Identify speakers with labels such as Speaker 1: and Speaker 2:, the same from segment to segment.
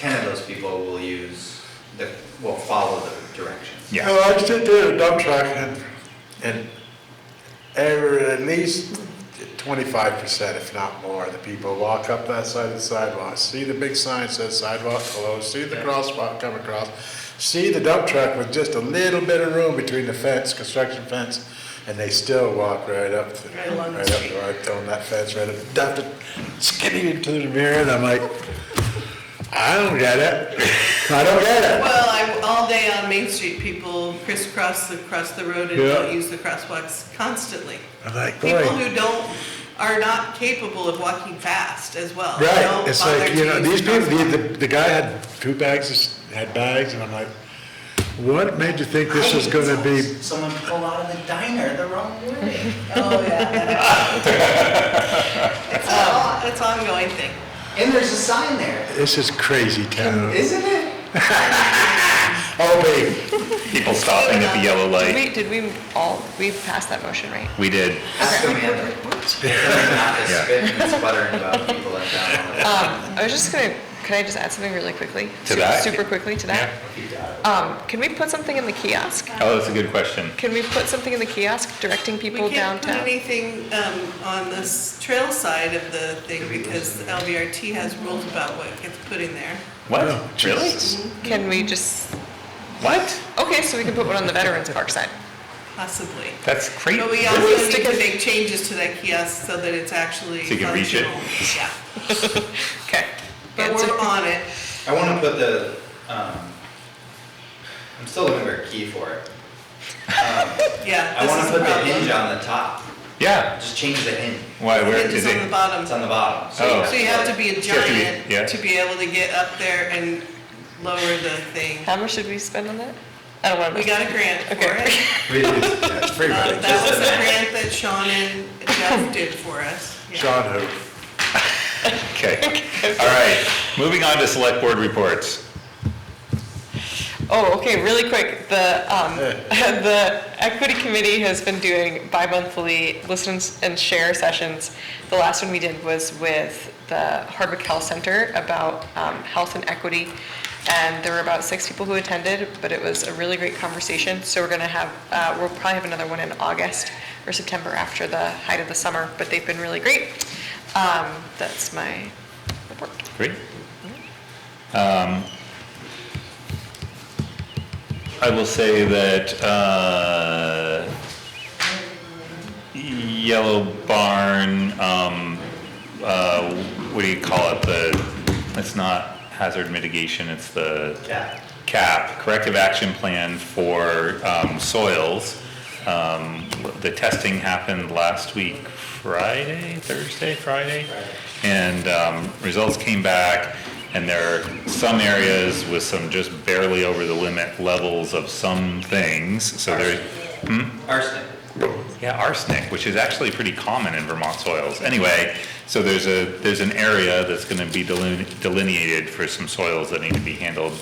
Speaker 1: those people will use, the will follow the directions.
Speaker 2: Yeah.
Speaker 3: Well, I did did a dump truck and, and every, at least twenty-five percent, if not more, of the people walk up that side of the sidewalk, see the big sign says sidewalk closed, see the
Speaker 1: Yeah.
Speaker 3: crosswalk come across, see the dump truck with just a little bit of room between the fence, construction fence, and they still walk right up, to-
Speaker 4: Right along the
Speaker 3: right up,
Speaker 4: street.
Speaker 3: right on that fence, right up, dump it, skidding into the mirror, and I'm like, I don't get it, I don't get it.
Speaker 4: Well, I, all day on Main Street, people crisscross across the road and
Speaker 3: Yeah.
Speaker 4: don't use the crosswalks constantly.
Speaker 3: I'm like, boy.
Speaker 4: People who don't, are not capable of walking fast as well.
Speaker 3: Right,
Speaker 4: Don't
Speaker 3: it's
Speaker 4: bother
Speaker 3: like,
Speaker 4: to
Speaker 3: you know,
Speaker 4: use the
Speaker 3: these people,
Speaker 4: crosswalk.
Speaker 3: the, the- the guy had two bags, of s- had bags, and I'm like, what made you think this was gonna be?
Speaker 5: Someone pull out of the diner the wrong way.
Speaker 4: Oh, yeah. Um, It's a, it's an ongoing thing.
Speaker 5: And there's a sign there,
Speaker 3: This is crazy town.
Speaker 5: isn't it?
Speaker 3: Oh, wait,
Speaker 2: People stopping at the yellow
Speaker 6: Did
Speaker 2: light.
Speaker 6: we, did we all, we passed that motion, right?
Speaker 2: We did.
Speaker 1: Ask Amanda, not to
Speaker 2: Yeah.
Speaker 1: spit and sputtering about people in town all the
Speaker 5: Uh.
Speaker 1: time.
Speaker 6: Um, I was just gonna, can I just add something really quickly?
Speaker 2: To
Speaker 6: Su-
Speaker 2: that?
Speaker 6: Super quickly to that? Um, can we put something in the kiosk?
Speaker 2: Oh, that's a good question.
Speaker 6: Can we put something in the kiosk directing people
Speaker 4: We can't put
Speaker 6: downtown?
Speaker 4: anything um, on this trail side of the thing because the LVRT has rules about what gets put in there.
Speaker 2: What?
Speaker 3: No,
Speaker 2: Really?
Speaker 6: Can we just,
Speaker 2: What?
Speaker 6: okay, so we can put one on the Veterans Park side.
Speaker 4: Possibly.
Speaker 2: That's crazy.
Speaker 4: But we also need to make changes to that kiosk so that it's actually
Speaker 2: So you can reach it?
Speaker 4: functional. Yeah,
Speaker 6: Okay.
Speaker 4: but
Speaker 6: It's a-
Speaker 4: we're on it.
Speaker 1: I wanna put the, um, I'm still looking for a key for it. Um,
Speaker 4: Yeah,
Speaker 1: I
Speaker 4: this
Speaker 1: wanna
Speaker 4: is a
Speaker 1: put the hinge
Speaker 4: problem.
Speaker 1: on the top,
Speaker 2: Yeah.
Speaker 1: just change the hinge,
Speaker 2: Why? Where
Speaker 4: Hinge
Speaker 2: is
Speaker 4: is on the
Speaker 2: it?
Speaker 4: bottom.
Speaker 1: it's on the bottom.
Speaker 2: Oh.
Speaker 4: So you have to be a
Speaker 2: You have to be- yeah.
Speaker 4: giant to be able to get up there and lower the thing.
Speaker 6: How much should we spend on that? I don't wanna.
Speaker 4: We got a grant for
Speaker 6: Okay.
Speaker 4: it.
Speaker 1: Really, yeah.
Speaker 3: that's pretty
Speaker 4: Um,
Speaker 3: much,
Speaker 4: That was a grant that Sean and Jeff did for us. Yeah.
Speaker 3: Sean who,
Speaker 2: Okay. All right. Moving on to select board reports.
Speaker 6: Oh, okay, really quick, the, um, the equity committee has been doing bi-monthly listen and share sessions. The last one we did was with the Hardwick Health Center about, um, health and equity. And there were about six people who attended, but it was a really great conversation. So we're gonna have, uh, we'll probably have another one in August or September after the height of the summer, but they've been really great. Um, that's my report.
Speaker 2: Great. Um, I will say that uh, Yellow Barn, um, uh, what do you call it? The, it's not hazard mitigation, it's the
Speaker 1: Yeah.
Speaker 2: cap, corrective action plan for um, soils. Um, The testing happened last week, Friday, Thursday, Friday? And um, results came back, and there are some areas with some just barely over the limit levels of some things, so there,
Speaker 1: Arsenic.
Speaker 2: yeah, arsenic, which is actually pretty common in Vermont soils. Anyway, so there's a, there's an area that's gonna be deline- delineated for some soils that need to be handled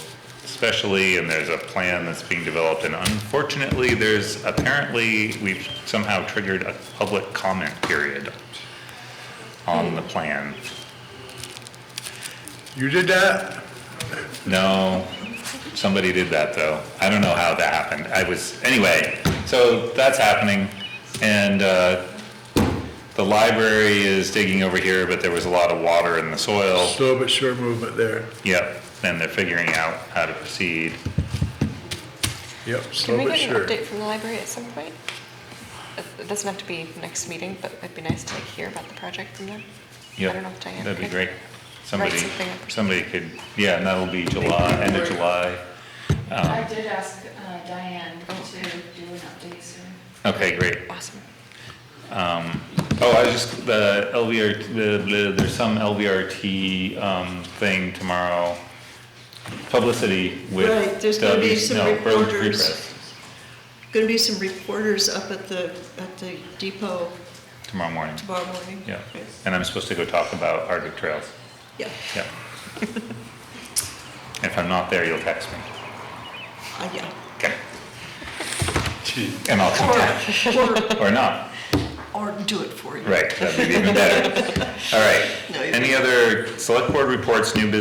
Speaker 2: specially, and there's a plan that's being developed, and unfortunately, there's, apparently, we've somehow triggered a public comment period on the plan.
Speaker 3: you did that?
Speaker 2: No, somebody did that though. I don't know how that happened. I was, anyway, so that's happening. And, uh, the library is digging over here, but there was a lot of water in the soil.
Speaker 3: Slow but sure movement there,
Speaker 2: Yep, and they're figuring out how to proceed.
Speaker 3: yep, slow
Speaker 6: Can we
Speaker 3: but
Speaker 6: get an
Speaker 3: sure.
Speaker 6: update from the library at some point? It- It doesn't have to be next meeting, but it'd be nice to like hear about the project from them.
Speaker 2: Yep,
Speaker 6: I don't know if Diane.
Speaker 2: That'd be
Speaker 6: could-
Speaker 2: great. Somebody,
Speaker 6: something up or
Speaker 2: somebody could, yeah, and that'll be July, end of July.
Speaker 7: I did ask uh, Diane to do an update soon.
Speaker 2: Okay, great.
Speaker 6: Awesome.
Speaker 2: Um, oh, I was just, the LVR, the, the, there's some LVRT, um, thing tomorrow, publicity with.
Speaker 8: Right, there's gonna be
Speaker 2: W-
Speaker 8: some
Speaker 2: no, Road Free
Speaker 8: reporters.
Speaker 2: Press
Speaker 8: Going to be some reporters up at the, at the depot
Speaker 2: Tomorrow morning,
Speaker 8: tomorrow morning.
Speaker 2: yeah. And I'm supposed to go talk about Arctic Trails,
Speaker 8: Yeah,
Speaker 2: yeah. If I'm not there, you'll text me,
Speaker 8: uh, yeah.
Speaker 2: okay? And I'll come down,
Speaker 8: Or,
Speaker 2: or not,
Speaker 8: or do it for you.
Speaker 2: right, that'd be even better. All right,
Speaker 8: No, you-
Speaker 2: any other select board reports, new business